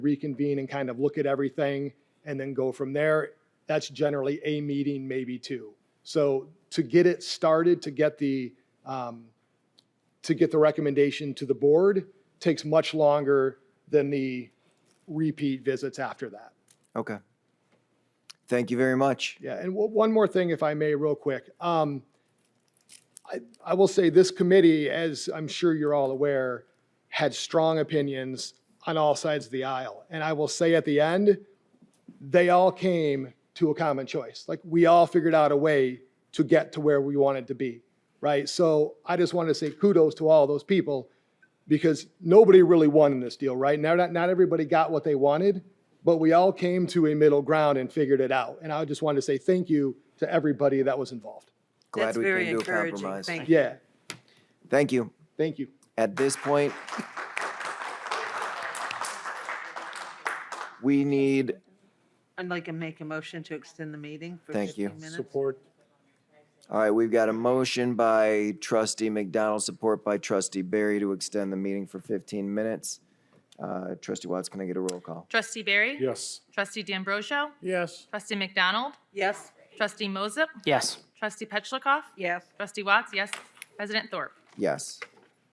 reconvene and kind of look at everything and then go from there. That's generally a meeting, maybe two. So to get it started, to get the, um, to get the recommendation to the board takes much longer than the repeat visits after that. Okay. Thank you very much. Yeah, and o- one more thing, if I may, real quick. Um, I, I will say this committee, as I'm sure you're all aware, had strong opinions on all sides of the aisle. And I will say at the end, they all came to a common choice. Like, we all figured out a way to get to where we wanted to be, right? So I just wanted to say kudos to all those people because nobody really won in this deal, right? Now, not, not everybody got what they wanted, but we all came to a middle ground and figured it out. And I just wanted to say thank you to everybody that was involved. Glad That's we came very to a encouraging. compromise. Thank you. Yeah, Thank you. thank you. At this point, we need, I'd like to make a motion to extend the meeting for Thank you. 15 minutes. Support. all right, we've got a motion by trustee McDonald, support by trustee Barry to extend the meeting for 15 minutes. Uh, Trustee Watts, can I get a roll call? Trustee Barry? Yes. Trustee D'Ambrosio? Yes. Trustee McDonald? Yes, Trustee Moses? Yes. Trustee Petchlokoff? yes. Trustee Watts? Yes. President Thorpe? Yes.